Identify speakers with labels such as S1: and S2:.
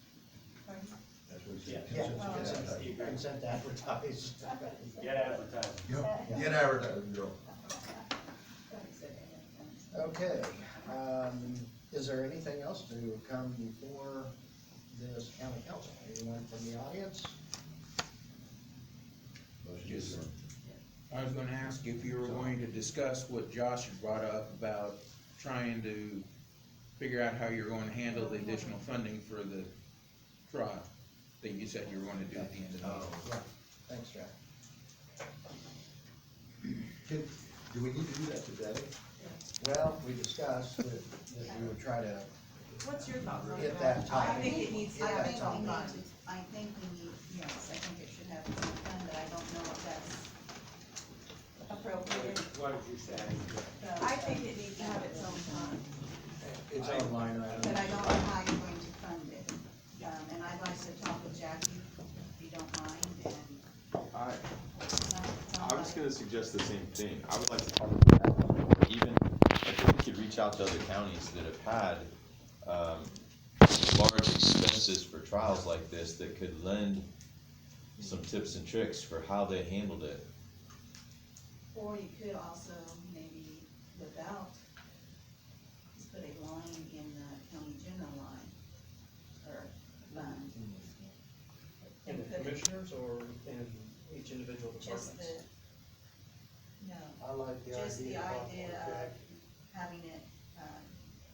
S1: That's what
S2: Yeah,
S1: it
S2: it's-
S1: said.
S2: it's- it's- you can send advertised.
S3: Get advertising.
S1: Yep, get advertising, Joe.
S2: Okay, um, is there anything else to come before this county council? Anyone from the audience?
S4: Yes, sir. I was gonna ask if you were going to discuss what Josh had brought up about trying to figure out how you're going to handle the additional funding for the trial that you said you were gonna do at the end of the
S2: Oh,
S4: year.
S2: right, thanks, Jack.
S1: Can, do we need to do that today?
S2: Well, we discussed that, that we would try to,
S5: What's your thoughts on
S2: Get
S5: that?
S2: that
S6: I
S2: time.
S6: think it needs to
S5: I
S6: have
S5: think we
S6: time.
S5: need
S6: I think we need, yes, I think it should have its own fund, but I don't know if that's appropriate.
S3: What did you say?
S5: I think it needs to have its own time.
S2: it's online,
S7: Um,
S2: right?
S6: But I don't know how you're going to fund it. Um, and I'd like to talk with Jackie, if you don't mind, and.
S7: I,
S6: it's not- it's not
S7: I was
S6: like-
S7: gonna suggest the same thing, I would like to talk about that, or even, I think we could reach out to other counties that have had, um, large expenses for trials like this that could lend some tips and tricks for how they handled it.
S6: Or you could also maybe without, just put a line in the county general line or fund.
S2: In
S6: And
S2: the
S6: put it
S2: commissioners or in each individual
S6: just the,
S2: department?
S6: no,
S2: I like
S6: the just the idea of having it uh,